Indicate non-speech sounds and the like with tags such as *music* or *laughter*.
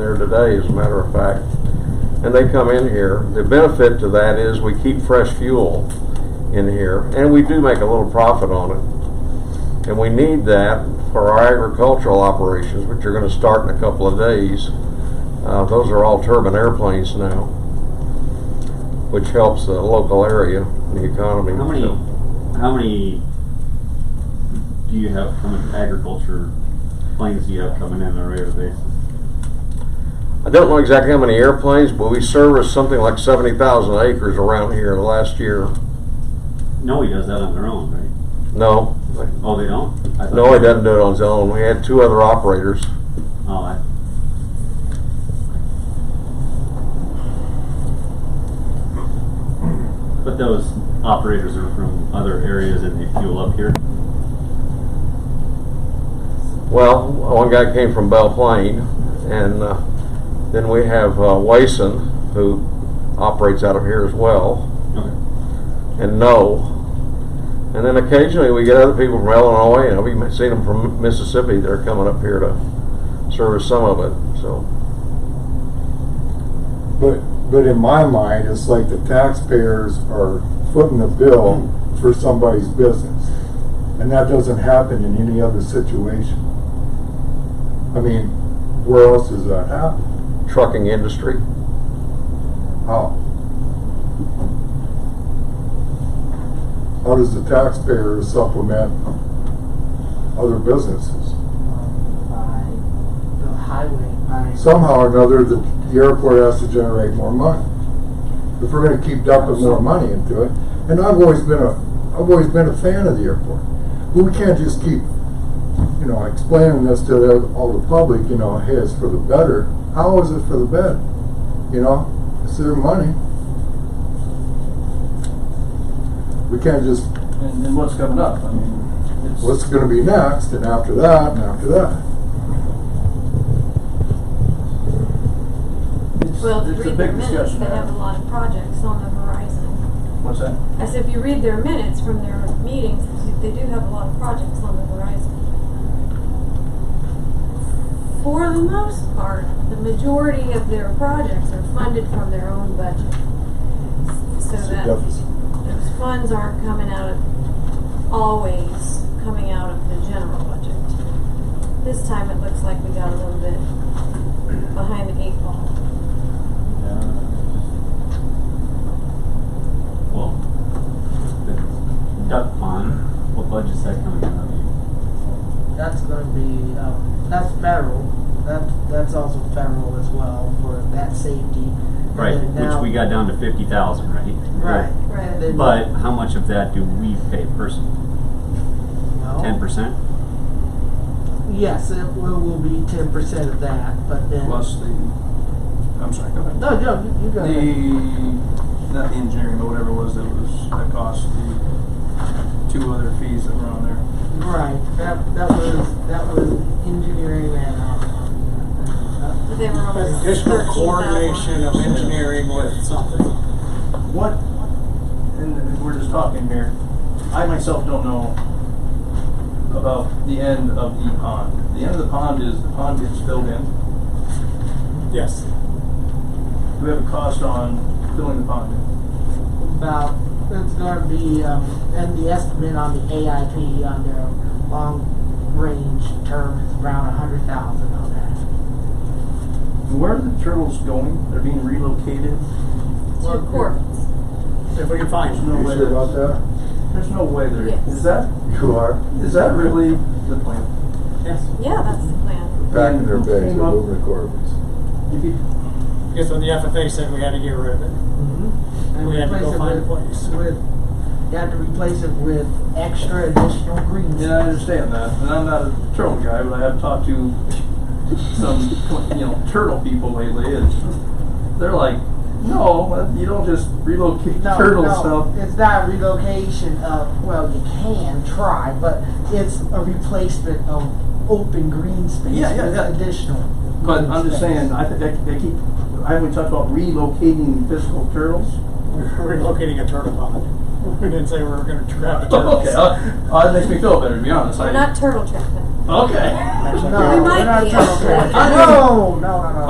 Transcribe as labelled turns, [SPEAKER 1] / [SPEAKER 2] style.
[SPEAKER 1] there today, as a matter of fact. And they come in here. The benefit to that is we keep fresh fuel in here, and we do make a little profit on it. And we need that for our agricultural operations, which are gonna start in a couple of days. Uh, those are all turbine airplanes now, which helps the local area, and the economy.
[SPEAKER 2] How many?
[SPEAKER 1] So-
[SPEAKER 2] How many do you have? How many agriculture planes do you have coming in on a regular basis?
[SPEAKER 1] I don't know exactly how many airplanes, but we serviced something like seventy thousand acres around here last year.
[SPEAKER 2] Noe does that on their own, right?
[SPEAKER 1] No,
[SPEAKER 2] Oh, they don't. I thought-
[SPEAKER 1] no, he doesn't do it on his own. We had two other operators.
[SPEAKER 2] Oh, I, but those operators are from other areas and they fuel up here.
[SPEAKER 1] Well, one guy came from Belle Plaine, and uh, then we have uh, Wason, who operates out of here as well,
[SPEAKER 2] Okay.
[SPEAKER 1] and No. And then occasionally we get other people from Illinois, and we've seen them from Mississippi that are coming up here to service some of it. So,
[SPEAKER 3] But, but in my mind, it's like the taxpayers are footing the bill for somebody's business. And that doesn't happen in any other situation. I mean, where else does that happen?
[SPEAKER 1] trucking industry.
[SPEAKER 3] How? How does the taxpayer supplement other businesses?
[SPEAKER 4] um, by the highway, by.
[SPEAKER 3] Somehow or another, the, the airport has to generate more money. If we're gonna keep dumping more money into it, and I've always been a, I've always been a fan of the airport. But we can't just keep, you know, explaining this to the, all the public, you know, hey, it's for the better. How is it for the better? You know, it's their money. We can't just,
[SPEAKER 5] And, and what's coming up? I mean, it's.
[SPEAKER 3] what's gonna be next, and after that, and after that?
[SPEAKER 5] it's-
[SPEAKER 6] Well, if
[SPEAKER 5] It's
[SPEAKER 6] you
[SPEAKER 5] a
[SPEAKER 6] read their
[SPEAKER 5] big
[SPEAKER 6] minutes,
[SPEAKER 5] discussion.
[SPEAKER 6] they have a lot of projects on the horizon.
[SPEAKER 5] What's that?
[SPEAKER 6] I said, if you read their minutes from their meetings, they do have a lot of projects on the horizon. For the most part, the majority of their projects are funded from their own budget. So
[SPEAKER 3] It's a
[SPEAKER 6] that
[SPEAKER 3] deficit.
[SPEAKER 6] those funds aren't coming out of, always coming out of the general budget. This time it looks like we got a little bit behind the eight ball.
[SPEAKER 2] Yeah. Well, the duck pond, what budget's that coming out of?
[SPEAKER 7] That's going to be, um, that's federal. That, that's also federal as well for that safety. And
[SPEAKER 2] Right,
[SPEAKER 7] then now-
[SPEAKER 2] which we got down to fifty thousand, right?
[SPEAKER 7] Right.
[SPEAKER 6] Right.
[SPEAKER 7] And then-
[SPEAKER 2] But how much of that do we pay personally?
[SPEAKER 7] Well,
[SPEAKER 2] Ten percent?
[SPEAKER 7] Yes, it will, will be ten percent of that, but then.
[SPEAKER 5] Plus the, I'm sorry, go ahead.
[SPEAKER 7] No, no, you, you got it.
[SPEAKER 5] The, not the engineering, but whatever it was that was, that cost, the two other fees that were on there.
[SPEAKER 7] Right, that, that was, that was engineering and, um,
[SPEAKER 6] They were almost
[SPEAKER 8] Additional
[SPEAKER 6] 13,000.
[SPEAKER 8] coordination of engineering with something.
[SPEAKER 5] What, and we're just talking here, I myself don't know about the end of the pond. The end of the pond is the pond gets filled in.
[SPEAKER 8] Yes.
[SPEAKER 5] Do we have a cost on filling the pond in?
[SPEAKER 7] about, it's gonna be, um, and the estimate on the AIP on their long-range term is around a hundred thousand on that.
[SPEAKER 5] Where are the turtles going? They're being relocated.
[SPEAKER 6] Through courts.
[SPEAKER 8] If we can find
[SPEAKER 5] There's
[SPEAKER 8] them.
[SPEAKER 5] no
[SPEAKER 3] You
[SPEAKER 5] way.
[SPEAKER 3] sure about
[SPEAKER 5] that's-
[SPEAKER 3] that?
[SPEAKER 5] There's no way they're.
[SPEAKER 6] Yes.
[SPEAKER 5] Is that
[SPEAKER 3] You are.
[SPEAKER 5] is that really the plan?
[SPEAKER 8] Yes.
[SPEAKER 6] Yeah, that's the plan.
[SPEAKER 3] Back in their
[SPEAKER 5] And who
[SPEAKER 3] bags,
[SPEAKER 5] came
[SPEAKER 3] they're
[SPEAKER 5] up-
[SPEAKER 3] moving the Corvettes.
[SPEAKER 5] If you,
[SPEAKER 8] Guess when the FFA said we had to get rid of
[SPEAKER 2] *laughs*
[SPEAKER 8] it.
[SPEAKER 7] And
[SPEAKER 8] Mm-hmm. We had to
[SPEAKER 7] replace
[SPEAKER 8] go
[SPEAKER 7] it
[SPEAKER 8] find a
[SPEAKER 7] with-
[SPEAKER 8] place.
[SPEAKER 7] With, you had to replace it with extra additional greens.
[SPEAKER 5] yeah, I understand that, and I'm not a turtle guy, but I have talked to some you know turtle people lately, and they're like, no, uh, you don't just relocate
[SPEAKER 7] No,
[SPEAKER 5] turtle
[SPEAKER 7] no,
[SPEAKER 5] stuff.
[SPEAKER 7] It's not relocation of, well, you can try, but it's a replacement of open green space
[SPEAKER 5] Yeah, yeah,
[SPEAKER 7] with
[SPEAKER 5] yeah.
[SPEAKER 7] additional.
[SPEAKER 5] But
[SPEAKER 7] green
[SPEAKER 5] I'm just
[SPEAKER 7] space.
[SPEAKER 5] saying, I think they, they keep. I haven't talked about relocating physical turtles.
[SPEAKER 8] We're relocating a turtle pond. We didn't say we were gonna trap a turtle.
[SPEAKER 5] *laughs* Okay, uh, uh, that makes me feel better. To be honest,
[SPEAKER 6] We're
[SPEAKER 5] I,
[SPEAKER 6] not turtle trapping.
[SPEAKER 5] okay.
[SPEAKER 7] *laughs* No,
[SPEAKER 6] We might
[SPEAKER 7] we're not
[SPEAKER 6] be. *laughs*
[SPEAKER 7] talking about-
[SPEAKER 5] I-
[SPEAKER 7] Oh, No, no, no, no.